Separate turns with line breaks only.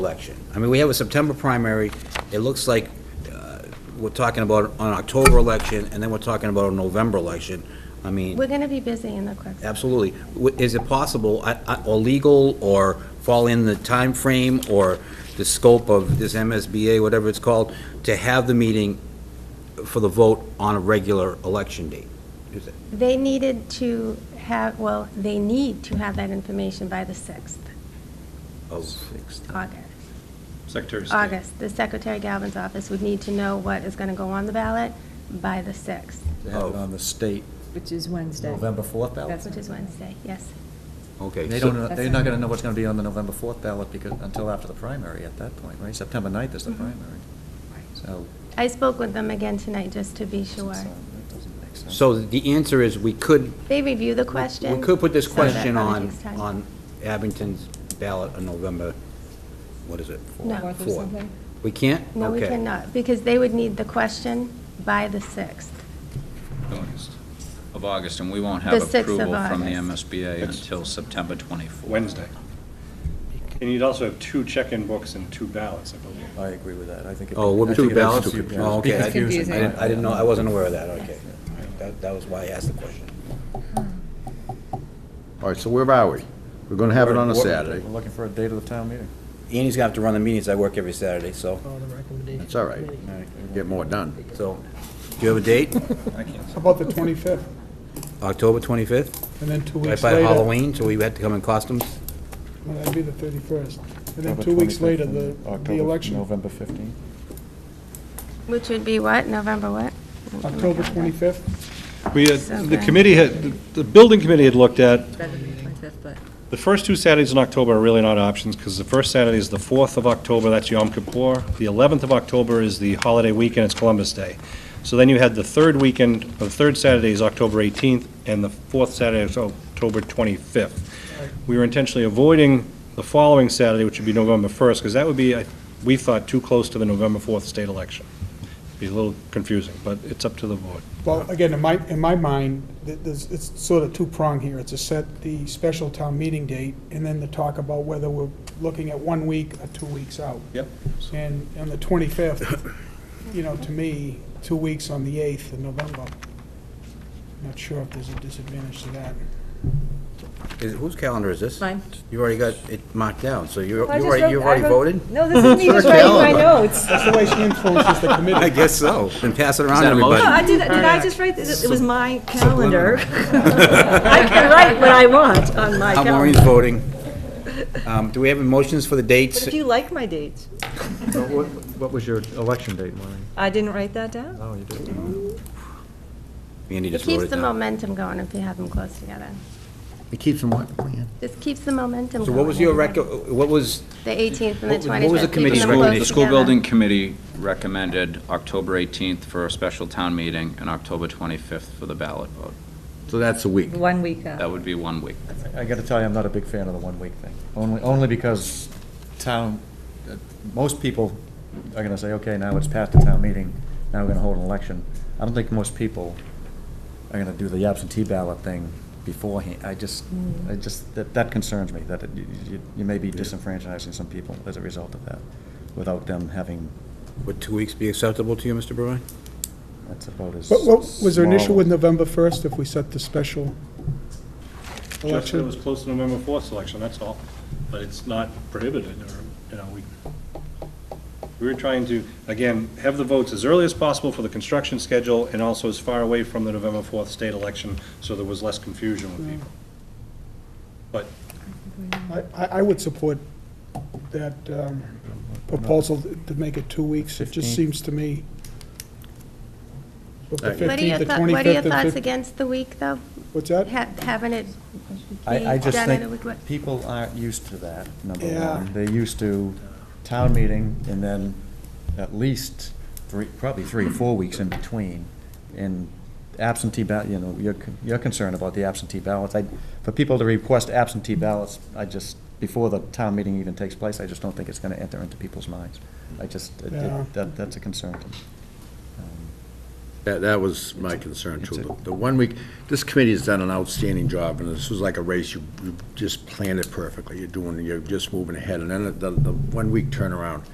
election. I mean, we have a September primary, it looks like uh, we're talking about an October election, and then we're talking about a November election. I mean,
We're going to be busy in the quick.
absolutely. W- Is it possible, I- I- or legal, or fall in the time frame or the scope of this MSBA, whatever it's called, to have the meeting for the vote on a regular election date? Is it-
They needed to have, well, they need to have that information by the 6th,
of-
August.
Secretary of State.
August, the Secretary Galvin's office would need to know what is going to go on the ballot by the 6th,
They have it
Oh.
on the state
Which is Wednesday.
November 4th ballot.
That's-
which is Wednesday, yes.
Okay.
They
so-
don't, know- they're not going to know what's going to be on the November 4th ballot because, until after the primary at that point, right? September 9th is the
Mhm.
Mm-hmm.
primary, so.
I spoke with them again tonight, just to be sure.
That doesn't make sense.
So the answer is, we could
They review the question.
We could put this
so that
question
probably
on,
takes time.
on Abington's ballot on November, what is it?
No.
Fourth
Fourth or something?
We can't?
No, we
Okay.
cannot, because they would need the question by the 6th.
August, of August, and we won't
The
have
6th of
approval from the
August.
MSBA
It's-
until September 24th.
Wednesday. And you'd also have two check-in books and two ballots, I believe.
I agree with that, I think. it-
Oh, we're
I
two
think it is
ballots?
stupid.
Oh, okay. I-
It's confusing.
I didn't, I didn't know, I wasn't aware of that, okay. All right, That, that was why I asked the question.
All right, so where are we? We're going to have it on a
We're-
Saturday.
We're looking for a date of the town meeting.
Annie's gonna have to run the meetings, I work every Saturday, so,
All the recommendations.
That's all right.
all right.
Get more done.
so, do you have a date?
How about the 25th?
October 25th?
And then two
Right
weeks
by
later.
Halloween, so we had to come in costumes?
Well, that'd be the 31st. And then
October
two weeks
25th
later,
and
the, the
October-
election.
November 15th.
Which would be what, November what?
October 25th?
We had, the
Something.
committee had, the- the building committee had looked at,
Better than the 25th, but
the first two Saturdays in October are really not options, because the first Saturday is the 4th of October, that's Yom Kippur. The 11th of October is the holiday weekend, it's Columbus Day. So then you had the third weekend, the third Saturday is October 18th, and the fourth Saturday is October 25th. We were intentionally avoiding the following Saturday, which would be November 1st, because that would be, I- we thought, too close to the November 4th state election. Be a little confusing, but it's up to the board.
Well, again, in my, in my mind, th- there's, it's sort of two-pronged here. It's to set the special town meeting date and then to talk about whether we're looking at one week or two weeks out.
Yep.
And on the 25th, you know, to me, two weeks on the 8th of November. Not sure if there's a disadvantage to that.
Is, whose calendar is this?
Mine.
You already got it marked down, so you, you
I just
already,
wrote-
you've
I
already
wrote-
voted?
No, this isn't even
It's
right in my
calendar.
notes.
That's the way she influences the committee.
I guess so, and pass it around
that a motion?
everybody.
No, I did, did I just write, this? it was my calendar. I can write what I want on my
Uh, Maureen's
calendar.
voting. Um, Do we have motions for the dates?
But if you like my dates,
What was your election date, Maureen?
I didn't write that down.
Oh, you did.
Andy
It
just wrote
keeps
it
the
down.
momentum going if you have them close together.
It keeps them what?
This keeps the momentum going.
So what was your
everybody.
rec, what was,
The 18th
what
and
was-
the 25th.
what was the
keeping
committee's
them
recommendation?
close
The school
together.
building committee recommended October 18th for a special town meeting and October 25th for the ballot vote.
So that's a week.
One week
That
out.
would be one week.
I gotta tell you, I'm not a big fan of the one-week thing. Only, only because town, uh, most people are gonna say, okay, now it's past the town meeting, now we're gonna hold an election. I don't think most people are gonna do the absentee ballot thing beforehand. I just, I just, that, that concerns me, that it- you- you, you may be disenfranchising some people as a result of that, without them having,
would two weeks be acceptable to you, Mr. Burwin?
that's about as.
What, what, was there an issue
small-
with November 1st if we set the special
Just that it
election?
was close to November 4th selection, that's all. But it's not prohibited, or, you know, we, we were trying to, again, have the votes as early as possible for the construction schedule and also as far away from the November 4th state election, so there was less confusion with people. But
I, I I would support that um, proposal to make it two weeks. It just
15th.
seems to me. With the
What are
15th,
your,
the
thou- what are your
25th, and
thoughts
fif-
against the week, though?
What's that?
Ha- Having it be
I, I just
done in a
think
week? what-
people aren't used to that, number
Yeah.
one. They're used to town meeting and then at least three, probably three, four weeks in between. And absentee ballot, you know, you're, con- you're concerned about the absentee ballots. I, for people to request absentee ballots, I just, before the town meeting even takes place, I just don't think it's gonna enter into people's minds. I just, it-
Yeah.
it- that, that's a concern to me. Um,
That, that was my concern too. The- The one week, this committee has done an outstanding job, and this was like a race. You, you just planned it perfectly. You're doing, you're just moving ahead, and then the, the one-week turnaround.